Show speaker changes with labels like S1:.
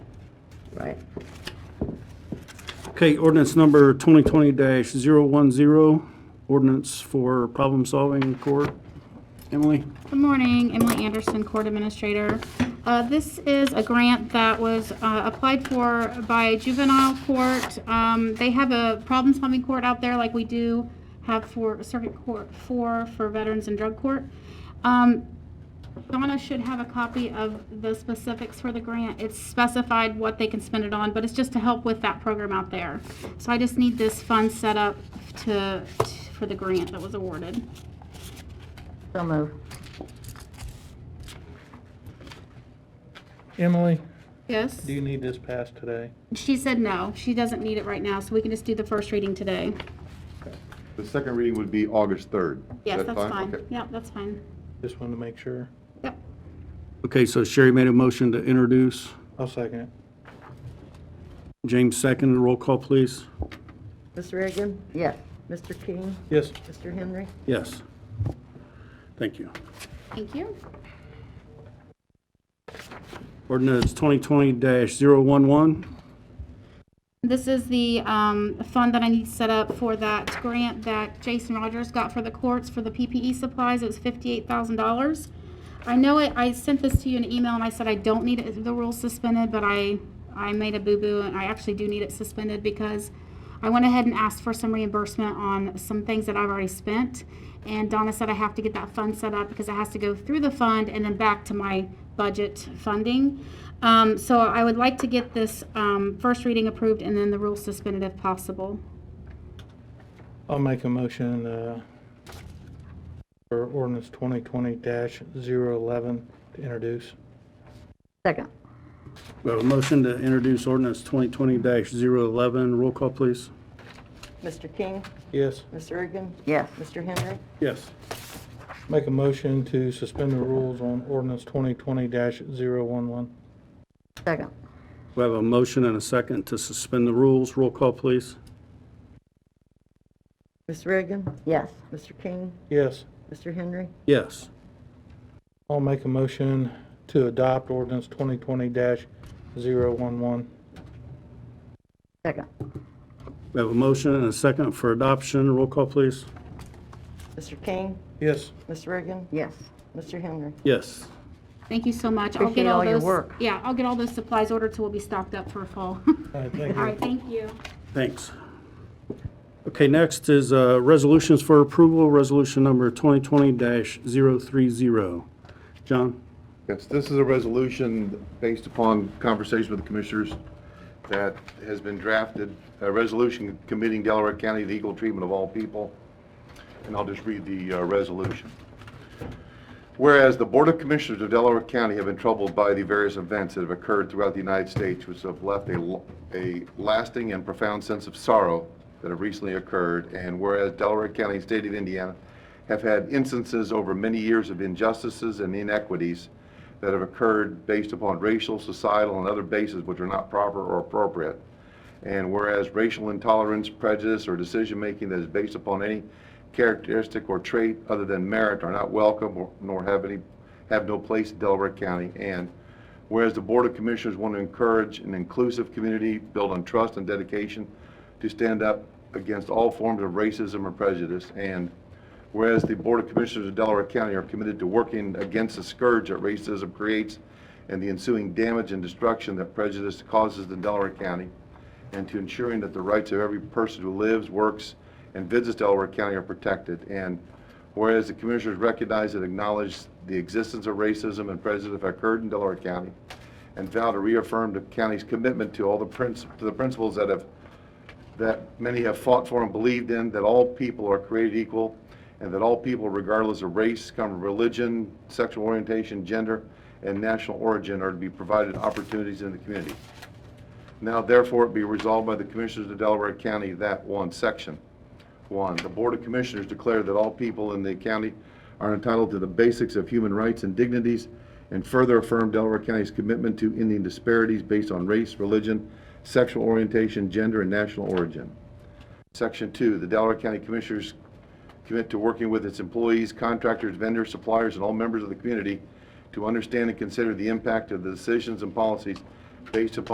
S1: right?
S2: Okay, ordinance number 2020-010, ordinance for problem solving in court. Emily?
S3: Good morning, Emily Anderson, Court Administrator. Uh, This is a grant that was uh, applied for by juvenile court. Um, They have a problem-solving court out there like we do have for circuit court four for veterans and drug court. Um, Donna should have a copy of the specifics for the grant. It's specified what they can spend it on, but it's just to help with that program out there. So I just need this fund set up to, for the grant that was awarded.
S1: So move.
S4: Emily,
S3: Yes?
S4: do you need this passed today?
S3: She said no, she doesn't need it right now, so we can just do the first reading today.
S5: The second reading would be August 3rd. Is
S3: Yes,
S5: that
S3: that's fine.
S5: Okay.
S3: Yep, that's fine.
S4: Just wanted to make sure.
S3: Yep.
S2: Okay, so Sherry made a motion to introduce.
S4: I'll second it.
S2: James second, roll call, please.
S1: Ms. Reagan? Yes. Mr. King?
S4: Yes,
S1: Mr. Henry?
S2: Yes. Thank you.
S3: Thank you.
S2: Ordinance 2020-011,
S3: This is the um, fund that I need set up for that grant that Jason Rogers got for the courts for the PPE supplies. It was $58,000. I know it, I sent this to you in an email and I said I don't need it- the rules suspended, but I, I made a boo-boo and I actually do need it suspended because I went ahead and asked for some reimbursement on some things that I've already spent. And Donna said I have to get that fund set up because it has to go through the fund and then back to my budget funding. Um, so I would like to get this, um, first reading approved and then the rules suspended if possible.
S4: I'll make a motion uh, for ordinance 2020-011 to introduce.
S1: Second.
S2: we have a motion to introduce ordinance 2020-011, roll call, please.
S6: Mr. King,
S4: Yes,
S6: Ms. Reagan,
S1: Yes.
S6: Mr. Henry,
S2: Yes.
S4: make a motion to suspend the rules on ordinance 2020-011.
S1: Second.
S2: We have a motion and a second to suspend the rules, roll call, please.
S6: Ms. Reagan,
S1: Yes.
S6: Mr. King,
S4: Yes,
S6: Mr. Henry,
S2: Yes.
S4: I'll make a motion to adopt ordinance 2020-011.
S1: Second.
S2: We have a motion and a second for adoption, roll call, please.
S6: Mr. King,
S4: Yes,
S6: Ms. Reagan,
S1: Yes.
S6: Mr. Henry.
S2: Yes.
S3: Thank you so much. I'll
S1: Appreciate
S3: get all
S1: all your
S3: those-
S1: work.
S3: Yeah, I'll get all those supplies ordered so we'll be stocked up for fall.
S4: all right, thank
S3: All right,
S4: you.
S3: thank you.
S2: Thanks. Okay, next is uh, resolutions for approval, resolution number 2020-030. John?
S5: Yes, this is a resolution based upon conversation with the commissioners that has been drafted, a resolution committing Delaware County to equal treatment of all people. And I'll just read the uh, resolution. Whereas the Board of Commissioners of Delaware County have been troubled by the various events that have occurred throughout the United States which have left a, lo- a lasting and profound sense of sorrow that have recently occurred, and whereas Delaware County and State of Indiana have had instances over many years of injustices and inequities that have occurred based upon racial, societal, and other bases which are not proper or appropriate, and whereas racial intolerance, prejudice, or decision-making that is based upon any characteristic or trait other than merit are not welcome or- nor have any, have no place in Delaware County. And whereas the Board of Commissioners want to encourage an inclusive community built on trust and dedication to stand up against all forms of racism or prejudice. And Whereas the Board of Commissioners of Delaware County are committed to working against the scourge that racism creates and the ensuing damage and destruction that prejudice causes in Delaware County, and to ensuring that the rights of every person who lives, works, and visits Delaware County are protected. And whereas the Commissioners recognize and acknowledge the existence of racism and prejudice that occurred in Delaware County, and vow to reaffirm the county's commitment to all the princ- to the principles that have that many have fought for and believed in, that all people are created equal, and that all people, regardless of race, come from religion, sexual orientation, gender, and national origin, are to be provided opportunities in the community. Now therefore it be resolved by the Commissioners of Delaware County that one, section one, the Board of Commissioners declare that all people in the county are entitled to the basics of human rights and dignities, and further affirm Delaware County's commitment to ending disparities based on race, religion, sexual orientation, gender, and national origin. Section two, the Delaware County Commissioners commit to working with its employees, contractors, vendors, suppliers, and all members of the community to understand and consider the impact of the decisions and policies based upon